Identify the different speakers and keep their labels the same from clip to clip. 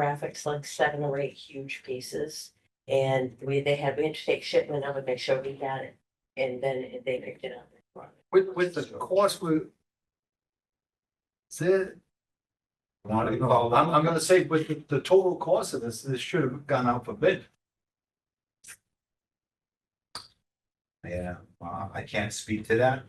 Speaker 1: graphics, like seven or eight huge pieces. And we, they had, we had to take shipment of it, make sure we got it, and then they picked it up.
Speaker 2: With, with the cost, we. Said.
Speaker 3: Wanna
Speaker 2: I'm,
Speaker 3: call-
Speaker 2: I'm gonna say with the, the total cost of this, this should have gone out for bid.
Speaker 3: Yeah, uh, I can't speak to that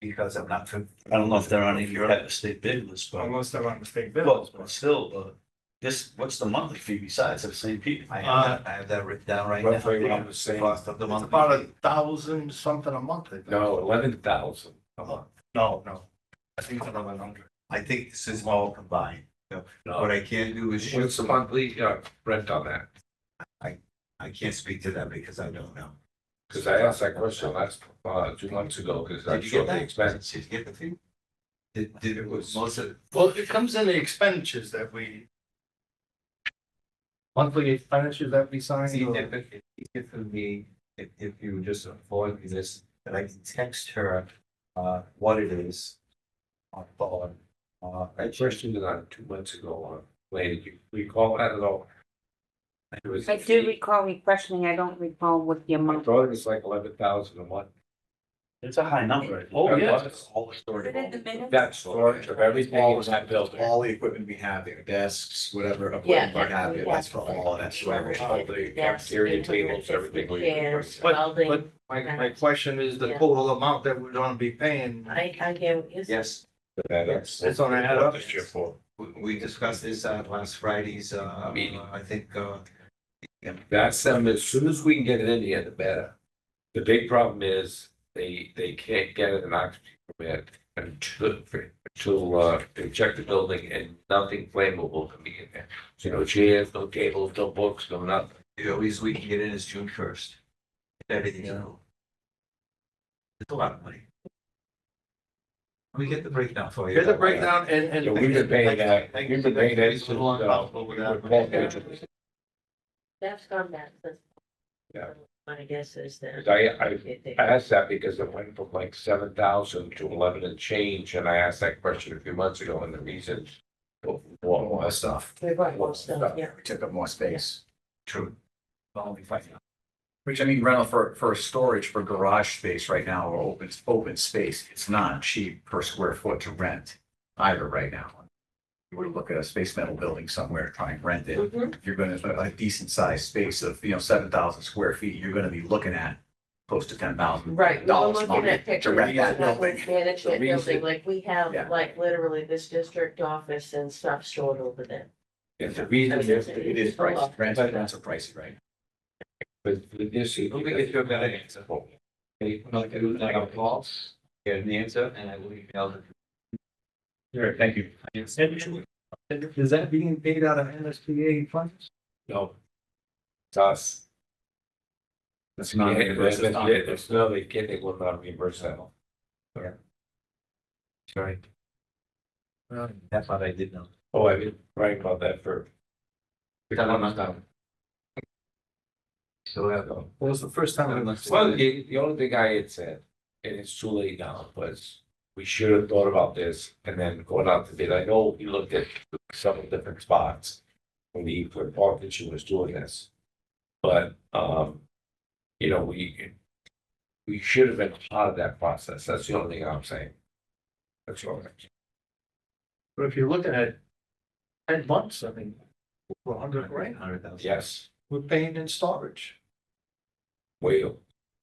Speaker 3: because I'm not. fam-
Speaker 4: I don't know if they're on any Europe if they bid list, but,
Speaker 2: Unless they're on mistake
Speaker 4: well,
Speaker 2: bills.
Speaker 4: but still,
Speaker 5: uh,
Speaker 4: but this, what's the monthly fee besides of St. Pete?
Speaker 3: I have that, I have that written down right now.
Speaker 6: Roughly around the same.
Speaker 3: Cost of the
Speaker 2: It's
Speaker 3: month.
Speaker 2: about a thousand something a month. I think.
Speaker 6: No, eleven thousand.
Speaker 3: a month.
Speaker 2: No, no. I think it's eleven hundred.
Speaker 3: I think this is all combined. So What
Speaker 6: No,
Speaker 3: I can do is shoot
Speaker 6: what's the
Speaker 3: some,
Speaker 6: monthly uh, rent on that?
Speaker 3: I can't speak to that because I don't know.
Speaker 6: Because I asked that question last, uh, two months ago, because I'm
Speaker 3: Did you get
Speaker 6: sure the
Speaker 3: that?
Speaker 6: expense.
Speaker 3: Did you get the fee? Did, did it was most of,
Speaker 2: Well, it comes in the expenditures that we. Monthly expenditures that we sign.
Speaker 7: See,
Speaker 2: or-
Speaker 7: if it, if it's easier for me, if, if you just avoid this, that I can text her, uh, what it is. On phone, uh,
Speaker 6: I questioned it on two months ago, on Lady, do you recall that at all? It was-
Speaker 8: I do recall me questioning, I don't recall what the
Speaker 6: I
Speaker 8: amount,
Speaker 6: thought it was like eleven thousand a month.
Speaker 4: It's a high number.
Speaker 6: Oh, yeah.
Speaker 4: All the story.
Speaker 6: That storage of everything in that building.
Speaker 3: all the equipment we have there, desks, whatever.
Speaker 1: Yeah.
Speaker 3: equipment we have there, That's for all of that. storage.
Speaker 6: All the cafeteria tables, everything. we-
Speaker 1: Chairs,
Speaker 2: But-
Speaker 1: welding,
Speaker 2: But my, my question is the total amount that we're gonna be paying.
Speaker 1: I, I can't, is
Speaker 3: Yes,
Speaker 6: That's-
Speaker 2: It's on an add up.
Speaker 6: This year for.
Speaker 3: we, we discussed this at last Friday's, uh,
Speaker 6: Meeting.
Speaker 3: I think, uh,
Speaker 6: That's them, as soon as we can get it in here, the better. The big problem is, they, they can't get it an occupancy permit until, until, uh, they check the building and nothing flammable can be in there. So no chairs, no tables, no books, no nothing.
Speaker 3: the earliest we can get in is June first. Everything's cool. It's a lot of money. We get the breakdown for you.
Speaker 2: Here's a breakdown and,
Speaker 6: So
Speaker 2: and.
Speaker 6: we've been paying that,
Speaker 3: Thank
Speaker 6: we've been paying that since,
Speaker 3: you.
Speaker 6: uh, we were twelve inches.
Speaker 1: that's gone back, that's.
Speaker 6: Yeah.
Speaker 1: My guess is that.
Speaker 6: I, I
Speaker 1: it- they-
Speaker 6: I asked that because it went from like seven thousand to eleven and change, and I asked that question a few months ago, and the reason. Well,
Speaker 3: More
Speaker 6: well,
Speaker 3: stuff.
Speaker 1: They brought more stuff, yeah.
Speaker 3: We took up more space. True. Only five.
Speaker 5: Which I mean, rental for, for storage for garage space right now or open, open space, it's not cheap per square foot to rent either right now. You were to look at a space metal building somewhere, try and rent it.
Speaker 1: Mhm.
Speaker 5: If you're gonna, a decent sized space of, you know, seven thousand square feet, you're gonna be looking at close to ten thousand.
Speaker 1: Right, we we're
Speaker 5: Dollars a
Speaker 1: looking
Speaker 5: month
Speaker 1: at
Speaker 5: to
Speaker 1: pictures,
Speaker 5: rent that
Speaker 1: not
Speaker 5: building.
Speaker 1: with management
Speaker 5: The reason-
Speaker 1: building, like we have,
Speaker 5: Yeah.
Speaker 1: like literally this district office and stuff stored over there.
Speaker 6: and the reason is, that
Speaker 5: It is pricey, rents, rents are pricey, right?
Speaker 6: but with this.
Speaker 7: Don't we get to a better answer? okay, I'm not gonna, like, I'll call, get an answer, and I will email her.
Speaker 6: Sure, thank you.
Speaker 2: Is that being paid out of NSBA funds?
Speaker 6: No. It's us.
Speaker 5: That's
Speaker 6: Yeah,
Speaker 5: not.
Speaker 6: It's
Speaker 5: versus
Speaker 6: not,
Speaker 5: not-
Speaker 6: it's not, they get, they will not reimburse that.
Speaker 5: Yeah.
Speaker 6: Sorry,
Speaker 7: That's what I did know.
Speaker 6: oh, I've been writing about that for.
Speaker 7: No, no, no, no.
Speaker 6: Still
Speaker 3: uh,
Speaker 6: have them.
Speaker 2: Well, it's the first time. I've-
Speaker 6: Well, the, the only thing I had said, and it's too late now, was we should have thought about this and then going out to bid. I know we looked at several different spots when the, when Parkinson was doing this. But, um, you know, we, we should have been part of that process. That's the only thing I'm saying. That's all.
Speaker 2: But if you're looking at ten months, I mean, we're hundred grand,
Speaker 7: Hundred thousand.
Speaker 6: Yes,
Speaker 2: we're paying in storage.
Speaker 6: we,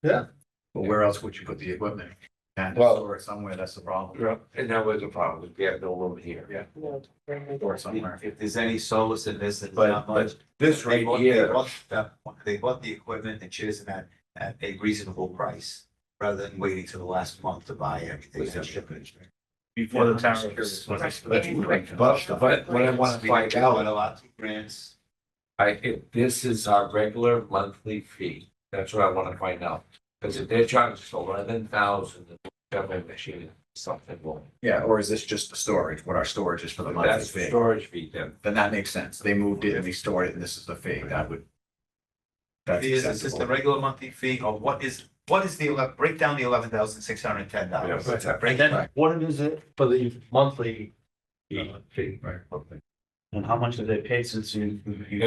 Speaker 5: But where else would you put the equipment? And
Speaker 6: Well-
Speaker 5: store it somewhere, that's the problem,
Speaker 6: yeah, and that was a problem. We have no room here.
Speaker 1: No,
Speaker 5: or somewhere.
Speaker 3: If there's any solace in this, it's
Speaker 6: But-
Speaker 3: not much.
Speaker 6: This
Speaker 3: They
Speaker 6: right
Speaker 3: bought- They
Speaker 6: here,
Speaker 3: bought the, they bought the equipment and chairs and that at a reasonable price, rather than waiting till the last month to buy everything.
Speaker 6: Was that
Speaker 2: Before the town.
Speaker 3: But,
Speaker 6: but what I wanna find out-
Speaker 3: A lot of grants.
Speaker 6: I, if this is our regular monthly fee, that's what I wanna find out. Cause if they're charging us eleven thousand, whichever machine, something will,
Speaker 5: Yeah, or is this just the storage, what our storage is for the monthly
Speaker 6: that's the
Speaker 5: fee?
Speaker 6: storage fee then.
Speaker 5: Then that makes sense. They moved it and they stored it and this is the fee. That would. That's
Speaker 3: Is this just the
Speaker 5: acceptable.
Speaker 3: regular monthly fee or what is, what is the, ele- break down the eleven thousand six hundred and ten dollars?
Speaker 6: Yeah, but-
Speaker 3: Break
Speaker 2: And then what is it for the monthly?
Speaker 6: Fee, right.
Speaker 5: And how much have they paid since you? you